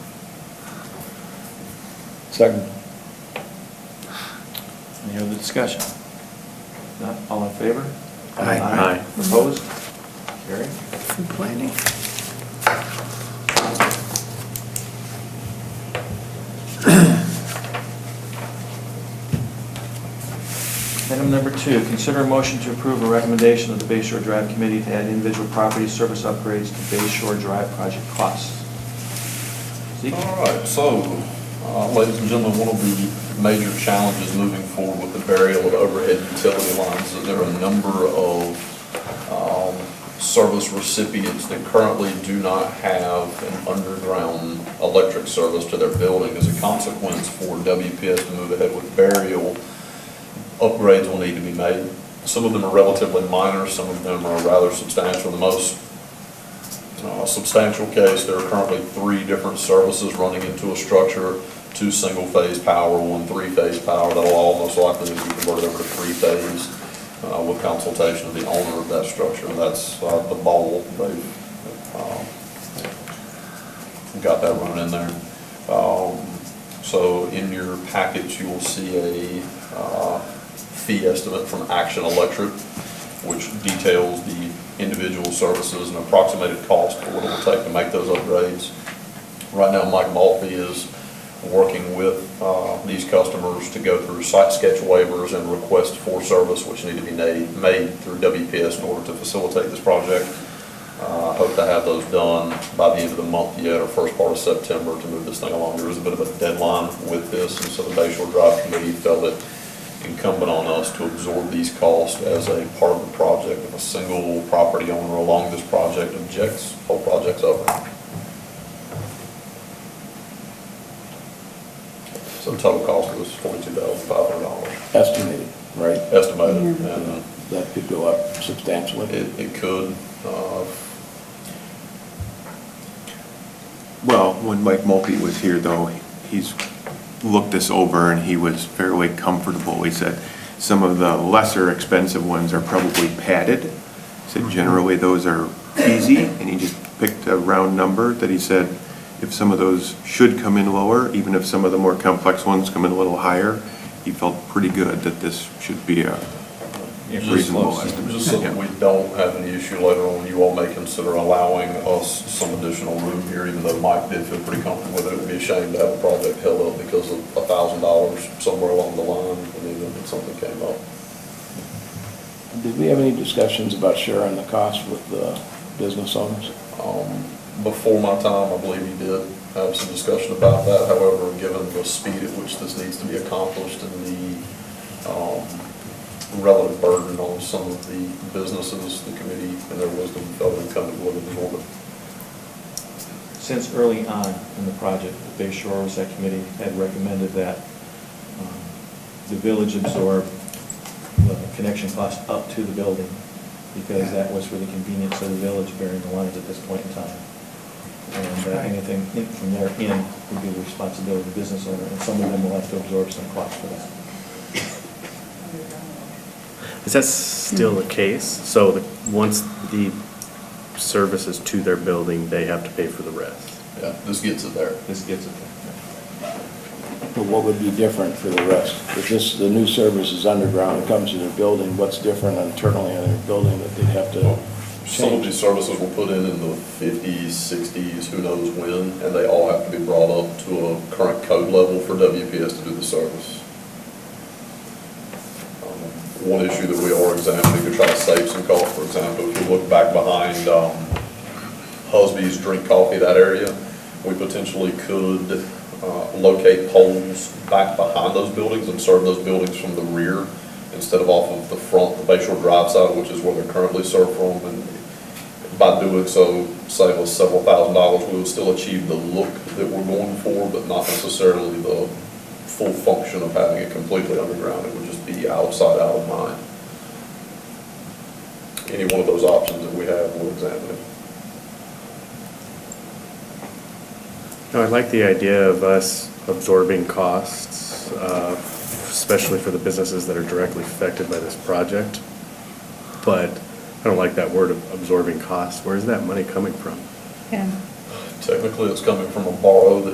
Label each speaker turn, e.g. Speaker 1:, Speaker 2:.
Speaker 1: Second.
Speaker 2: Any other discussion? Not, all in favor?
Speaker 3: Aye.
Speaker 4: Aye.
Speaker 2: Opposed? Carried.
Speaker 3: From planning.
Speaker 2: Item number two, consider a motion to approve a recommendation of the Bay Shore Drive Committee to add individual property service upgrades to Bay Shore Drive project costs. Zeke?
Speaker 5: All right, so, uh, ladies and gentlemen, one of the major challenges moving forward with the burial of overhead utility lines is there are a number of um, service recipients that currently do not have an underground electric service to their building. As a consequence for WPS to move ahead with burial, upgrades will need to be made. Some of them are relatively minor, some of them are rather substantial. The most uh, substantial case, there are currently three different services running into a structure, two single-phase power, one three-phase power. That'll all most likely be converted over to three-phase uh, with consultation of the owner of that structure. That's uh, the bowl. They've uh, um, got that running in there. Um, So in your package, you will see a uh, fee estimate from Action Electric which details the individual services and approximated cost of what it will take to make those upgrades. Right now, Mike Maltby is working with uh, these customers to go through site sketch waivers and requests for service, which need to be made, made through WPS in order to facilitate this project. Uh, I hope to have those done by the end of the month yet, or first part of September, to move this thing along. There is a bit of a deadline with this, and so the Bay Shore Drive Committee felt it incumbent on us to absorb these costs as a part of the project. If a single property owner along this project objects, whole project's over. So total cost was forty-two thousand five hundred dollars,
Speaker 1: Estimated, right?
Speaker 5: estimated, and uh,
Speaker 1: That could go up substantially.
Speaker 5: it, it could, uh,
Speaker 4: Well, when Mike Mulkey was here, though, he's looked this over and he was fairly comfortable. He said some of the lesser expensive ones are probably padded. He Said generally those are easy, and he just picked a round number that he said if some of those should come in lower, even if some of the more complex ones come in a little higher, he felt pretty good that this should be a reasonable estimate.
Speaker 5: Just so that we don't have any issue later on, you all may consider allowing us some additional room here, even though Mike did feel pretty comfortable with it. It would be a shame to have a project held up because of a thousand dollars somewhere along the line, and even if something came up.
Speaker 1: Did we have any discussions about sharing the cost with the business owners?
Speaker 5: Um, Before my time, I believe you did have some discussion about that. However, given the speed at which this needs to be accomplished and the um, relative burden on some of the businesses, the committee and their wisdom felt incumbent to look at the board.
Speaker 2: Since early on in the project, the Bay Shore Oversight Committee had recommended that um, the village absorb the connection cost up to the building, because that was for the convenience of the village bearing the lines at this point in time. And uh,
Speaker 3: Right.
Speaker 2: anything in- from there in would be the responsibility of the business owner, and some of them will have to absorb some cost for that.
Speaker 4: Is that still the case? So once the service is to their building, they have to pay for the rest?
Speaker 5: Yeah, this gets it there.
Speaker 2: This gets it there.
Speaker 1: But what would be different for the rest? If this, the new service is underground, it comes to their building, what's different internally in their building that they'd have to
Speaker 5: Some of these
Speaker 1: change?
Speaker 5: services were put in in the fifties, sixties, who knows when, and they all have to be brought up to a current code level for WPS to do the service. Um, One issue that we are examining to try to save some cost, for example, if you look back behind, um, Husby's Drink Coffee, that area, we potentially could, uh, locate poles back behind those buildings and serve those buildings from the rear instead of off of the front, the Bay Shore Drive side, which is where they're currently served from, and by doing so, save us several thousand dollars, we will still achieve the look that we're going for, but not necessarily the full function of having it completely underground, it would just be outside, out of mind. Any one of those options that we have, we'll examine it.
Speaker 6: No, I like the idea of us absorbing costs, uh, especially for the businesses that are directly affected by this project. But I don't like that word of absorbing costs. Where's that money coming from?
Speaker 3: Yeah.
Speaker 5: Technically, it's coming from a borrow that